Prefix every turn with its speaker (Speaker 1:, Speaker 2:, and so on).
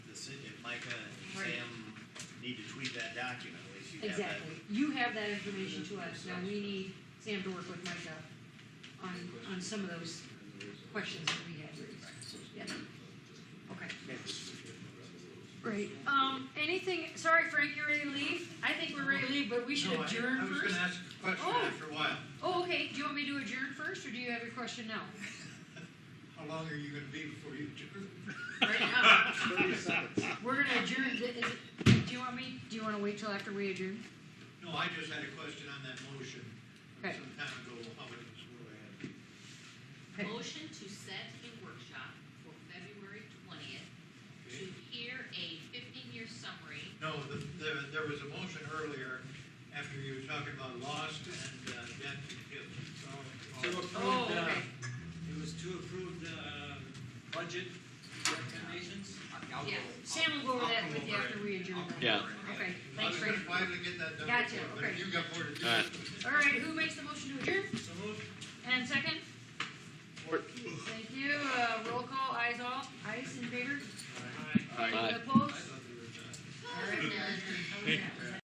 Speaker 1: like a
Speaker 2: Right.
Speaker 1: Sam need to tweak that document, at least you have that.
Speaker 2: Exactly. You have that information to us. Now, we need Sam to work with Micah on, on some of those questions that we had raised. Yeah. Okay. Great. Um, anything, sorry, Frank, you're ready to leave? I think we're ready to leave, but we should
Speaker 3: No, I-
Speaker 2: adjourn
Speaker 3: I was
Speaker 2: first.
Speaker 3: gonna ask a question
Speaker 2: Oh.
Speaker 3: after a while.
Speaker 2: Oh, okay. Do you want me to adjourn first, or do you have your question now?
Speaker 3: How long are you gonna be before you adjourn?
Speaker 2: Right now? We're gonna adjourn. Th- is it- Do you want me, do you wanna wait till after we adjourn?
Speaker 3: No, I just had a question on that motion from
Speaker 2: Okay.
Speaker 3: some time ago, how it was worded.
Speaker 2: Okay.
Speaker 4: Motion to set a workshop for February twentieth to hear a fifteen-year summary.
Speaker 3: No, the, there, there was a motion earlier after you were talking about Lost and uh, Death and
Speaker 5: To
Speaker 3: Kill.
Speaker 5: approve,
Speaker 2: Oh,
Speaker 5: uh,
Speaker 2: okay.
Speaker 5: it was to approve the uh, budget recommendations?
Speaker 4: Yeah.
Speaker 2: Sam will go over that with you after we adjourn. then.
Speaker 6: Yeah.
Speaker 2: Okay,
Speaker 3: I
Speaker 2: thanks,
Speaker 3: was
Speaker 2: Frank.
Speaker 3: gonna finally get that done.
Speaker 2: Gotcha,
Speaker 3: before, But
Speaker 2: okay.
Speaker 3: if you've got more to do.
Speaker 6: All right.
Speaker 2: All right, who makes the motion to adjourn?
Speaker 5: So moved.
Speaker 2: And second? Thank you, uh, roll call, eyes all, eyes in favor?
Speaker 5: Aye.
Speaker 6: Aye.
Speaker 2: Opposed?